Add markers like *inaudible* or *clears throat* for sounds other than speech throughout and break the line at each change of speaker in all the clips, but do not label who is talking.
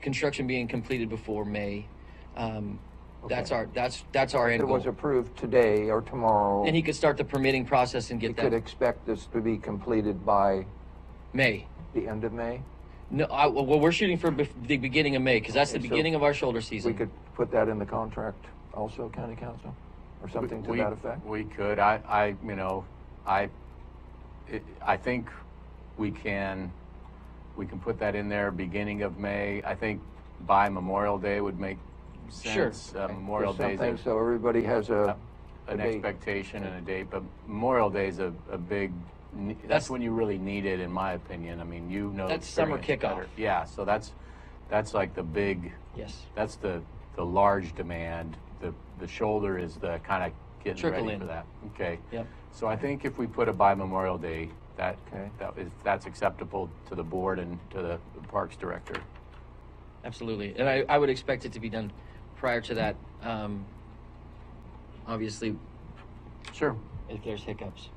construction being completed before May. Um, that's
Okay.
our, that's, that's our end
It was
goal.
approved today or tomorrow.
And he could start the permitting process and
You
get
could
that
expect this to be completed by
May.
the end of May?
No, I, well, we're shooting for bef- the beginning of May, because that's the
Okay, so
beginning of our shoulder
We
season.
could put that in the contract also, county council, or something to
We-
that effect?
We could, I, I, you know, I, it- I think we can, we can put that in there, beginning of May. I think by Memorial Day would make
Sure.
sense. Uh, Memorial Day's
Something
a-
So everybody has a, a
an
date.
expectation and a date, but Memorial Day's a, a big, ne-
That's-
that's when you really need it, in my opinion. I mean, you know. the
That's summer
experience better.
kickoff.
Yeah, so that's, that's like the big,
Yes,
that's the, the large demand. The, the shoulder is the kind of getting
Trickle
ready
in.
for that. Okay.
yep.
So I think if we put it by Memorial Day, that,
Okay.
that is, that's acceptable to the board and to the Parks Director.
Absolutely, and I, I would expect it to be done prior to that. Um, obviously,
Sure.
if there's hiccups.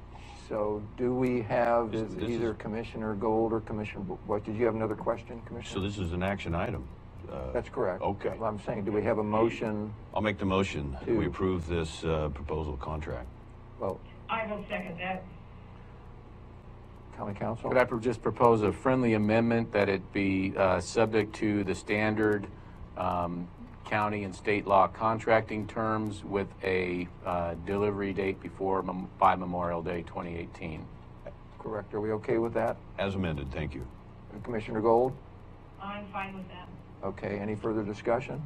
so do we have,
This-
is
this
either
is-
Commissioner Gold or Commissioner, Bo- what, did you have another question,
So
Commissioner?
this is an action item. Uh,
That's correct.
Okay.
I'm saying, do we have a motion?
I'll make the motion. that We
Two.
approve this uh, proposal contract.
Well,
I will second that.
county council?
Could I pro- just propose a friendly amendment that it be uh, subject to the standard um, county and state law contracting terms with a uh, delivery date before, mem- by Memorial Day 2018?
Correct, are we okay with that?
As amended, thank you.
Commissioner Gold?
I'm fine with that.
Okay, any further discussion?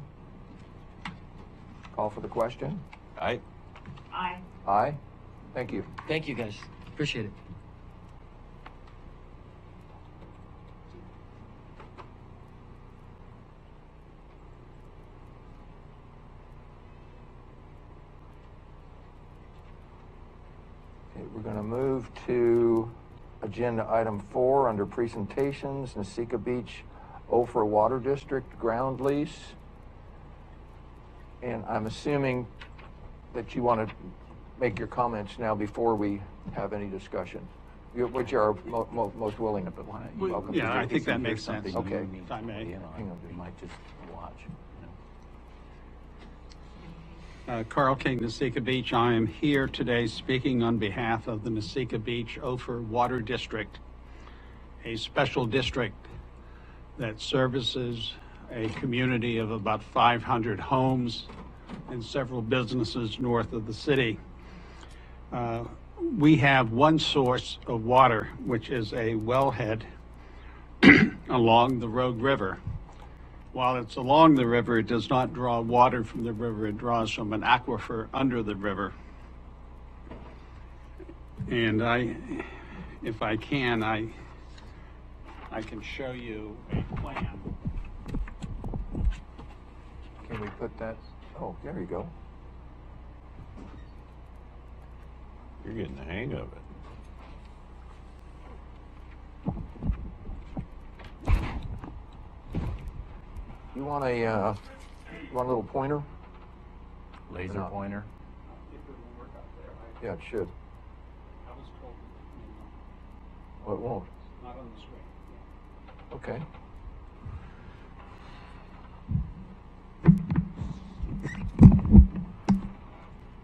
Call for the question?
I,
Aye.
Aye? Thank you.
Thank you, guys. Appreciate it.
Okay, we're going to move to agenda item four under presentations, Nasika Beach Ophir Water District ground lease. And I'm assuming that you want to make your comments now before we have any discussion, You- which you are mo- mo- most willing to.
Well,
welcome to
yeah,
do.
I think that makes sense.
something Okay.
If I may.
Hang on just a
You might just watch. you know.
Uh, Carl King, Nasika Beach. I am here today speaking on behalf of the Nasika Beach Ophir Water District, a special district that services a community of about 500 homes and several businesses north of the city. Uh, We have one source of water, which is a wellhead *clears throat* along the Rogue River. While it's along the river, it does not draw water from the river, it draws from an aquifer under the river. And I, if I can, I, I can show you a plan.
Can we put that, oh, there you go.
you're getting the hang of it.
You want a, uh, you want a little pointer?
Laser
Not-
pointer.
Yeah, it should. Well, it won't. Okay.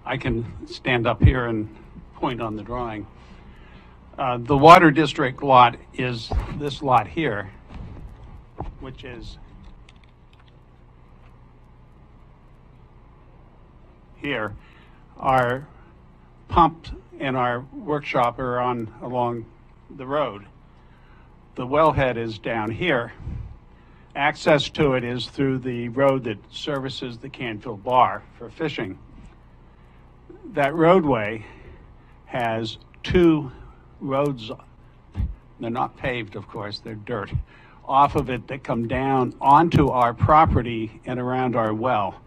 I can stand up here and point on the drawing. Uh, The Water District lot is this lot here, which is here. Our pump and our workshop are on, along the road. The wellhead is down here. Access to it is through the road that services the Canfield Bar for fishing that roadway has two roads, they're not paved, of course, they're dirt, off of it that come down onto our property and around our well.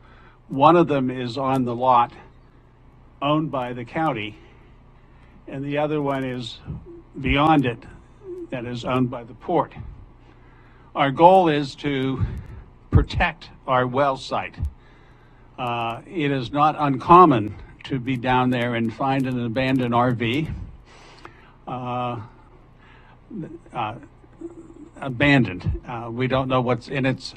One of them is on the lot owned by the county, and the other one is beyond it that is owned by the port. Our goal is to protect our well site uh, it is not uncommon to be down there and find an abandoned RV. Uh, uh, abandoned. Uh, we don't know what's in its